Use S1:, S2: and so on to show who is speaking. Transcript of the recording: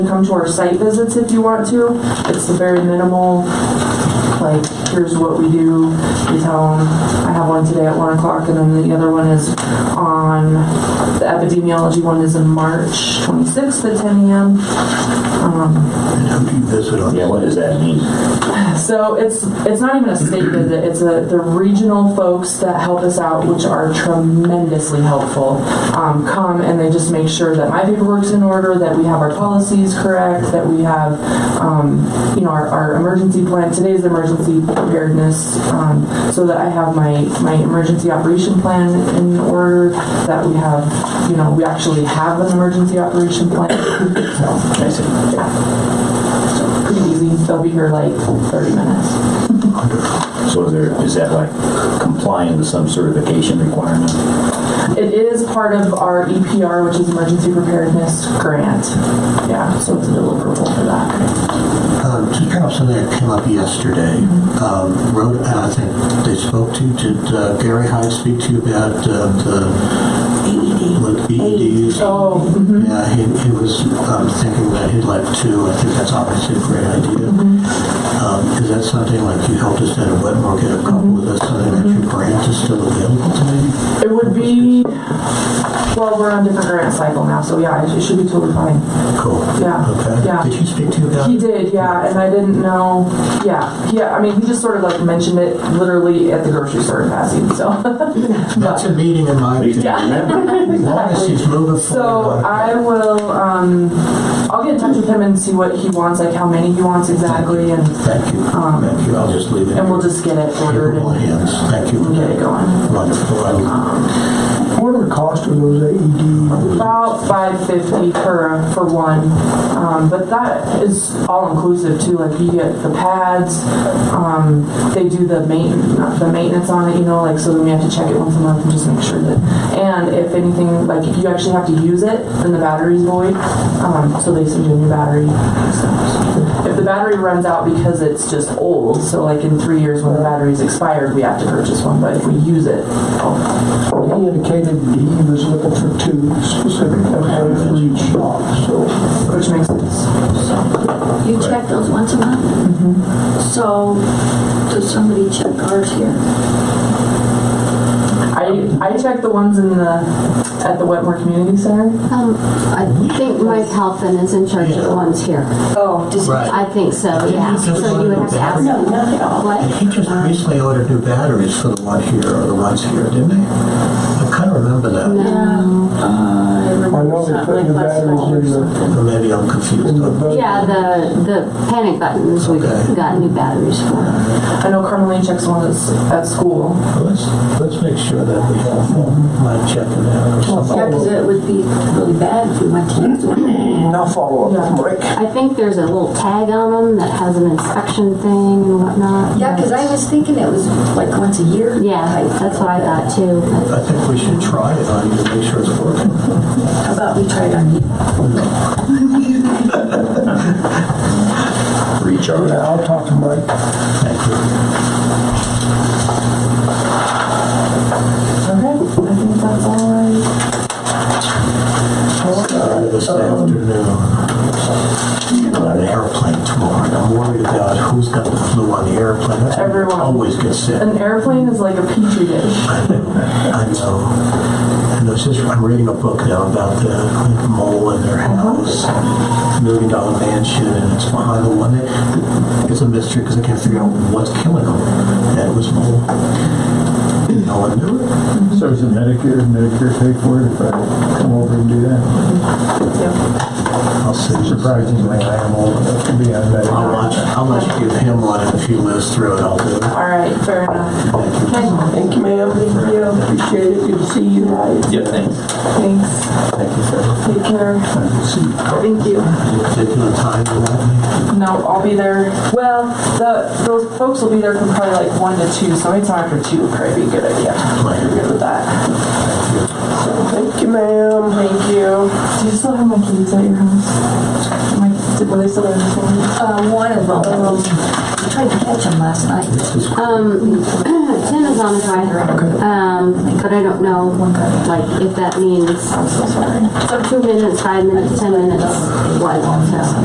S1: Come to our site visits if you want to. It's the very minimal, like, here's what we do. We tell them, I have one today at one o'clock and then the other one is on, the epidemiology one is in March twenty-sixth at ten AM.
S2: Um, And how do you visit on?
S3: Yeah, what does that mean?
S1: So it's it's not even a state visit. It's a the regional folks that help us out, which are tremendously helpful. Um, come and they just make sure that my paperwork's in order, that we have our policies correct, that we have um, you know our, our emergency plan. Today's emergency preparedness, um, so that I have my my emergency operation plan in order. That we have you know we actually have an emergency operation plan. So
S3: I said,
S1: pretty easy. They'll be here like 30 minutes.
S3: So is there, is that like complying to some certification requirement?
S1: It is part of our EPR, which is Emergency Preparedness Grant. Yeah, so it's a deliverable for that.
S2: Um, Just kind of something that came up yesterday. Um, Rhode, I think they spoke to, did uh, Gary Hyde speak to you about uh, the like BEDs?
S1: Oh, mhm.
S2: Yeah, he, he was um, thinking that he'd like to, I think that's obviously a great idea.
S1: Mm-hmm.
S2: Um, Is that something like you helped us out at Wetmore get a couple, is that something that your grant is still available to maybe?
S1: it would be, well, we're on different grant cycle now, so yeah, it should be totally fine.
S2: Cool.
S1: Yeah,
S2: Okay.
S1: yeah.
S2: Did he speak to you about?
S1: He did, yeah, and I didn't know, yeah, yeah, I mean, he just sort of like mentioned it literally at the grocery store in passing, so.
S2: That's a meeting in my opinion. As long as he's moving forward.
S1: So
S2: on it.
S1: I will, um, I'll get in touch with him and see what he wants, like how many he wants exactly, and,
S2: Thank you. Thank you. I'll just leave it.
S1: Um, and we'll just get it ordered
S2: Capable
S1: and
S2: hands. Thank you.
S1: get it going. Um,
S2: Wonderful. I-
S4: What are the cost of those
S2: E
S4: AED?
S1: About five fifty per for one, um, but that is all inclusive too. Like you get the pads, um, they do the main the maintenance on it. You know, like so then we have to check it once a month and just make sure that. And if anything, like if you actually have to use it, then the battery's void, um, so they send you a new battery. So, If the battery runs out because it's just old, so like in three years when the battery's expired, we have to purchase one. But if we use it, oh,
S4: He indicated he was looking for two specific, okay, for each shop, so.
S1: which makes sense.
S5: You check those once a month?
S4: Mm-hmm.
S5: So, does somebody check ours here?
S1: I, I checked the ones in the, at the Wetmore Community Center.
S6: Um, I think Mike Halpin is in charge of the ones here.
S7: Oh, just,
S2: Right.
S6: I think so, yeah. So you would have to ask
S7: no, not at all.
S2: And
S6: what?
S2: he just recently ordered new batteries for the one here or the ones here, didn't he? I kind of remember that.
S6: No.
S4: I know they put new batteries in the,
S2: Or maybe I'm
S4: in
S2: confused.
S4: the
S2: Okay.
S4: boat.
S6: Yeah, the, the panic buttons, we've
S2: Okay.
S6: got new batteries for.
S1: I know Carmeline checks one that's at school.
S2: Well, Let's, let's make sure that we have one. Might check it out or something.
S5: Yeah, because it would be really bad if we went to use one.
S4: Now follow up, Rick.
S6: I think there's a little tag on them that has an inspection thing and whatnot.
S7: yeah, because I was thinking it was like once a year.
S6: Yeah,
S7: type.
S6: that's what I thought too.
S2: I think we should try it on you to make sure it's working.
S7: How about we try it on you?
S3: Recharge?
S4: Yeah, Uh, I'll talk to Mike.
S2: Thank you.
S3: uh,
S1: Okay, I think that's all I.
S2: Uh, this afternoon. I'm On an airplane tomorrow, and I'm worried about who's got the flu on the airplane. That's why I
S1: Everyone.
S2: Always gets sick.
S1: An airplane is like a petri dish.
S2: I know. And it's just, I'm reading a book now about the mole in their house, million dollar mansion, and it's behind the one that, it's a mystery because I can't figure out what's killing them. And it was mole. No one knew it.
S8: So is it Medicare, Medicare pay for it if I come over and do that?
S1: Yep.
S2: I'll send you.
S8: Surprisingly, I am old enough to be on
S2: I'll
S8: Medicare.
S2: watch, I'll let you give him one, and if he lives through it, I'll do it.
S1: All right, fair enough. Okay,
S4: Thank you, ma'am. Thank you. Appreciate it. Good to see you.
S3: Yeah, thanks.
S1: thanks. Thank you, sir. Take care. Thank you.
S2: particular time of that?
S1: No, I'll be there. Well, the, those folks will be there from probably like one to two, so anytime after two would probably be a good idea.
S2: Like,
S1: You're good with that.
S4: Thank you, ma'am.
S1: Thank you. Do you still have my keys at your house? My, did- were they still there before?
S7: Uh, one of them. I tried to catch him last night.
S2: this is-
S6: Um, Tim is on his way. Um, but I don't know, like, if that means
S7: I'm so sorry.
S6: two minutes, five minutes, ten minutes, what, so.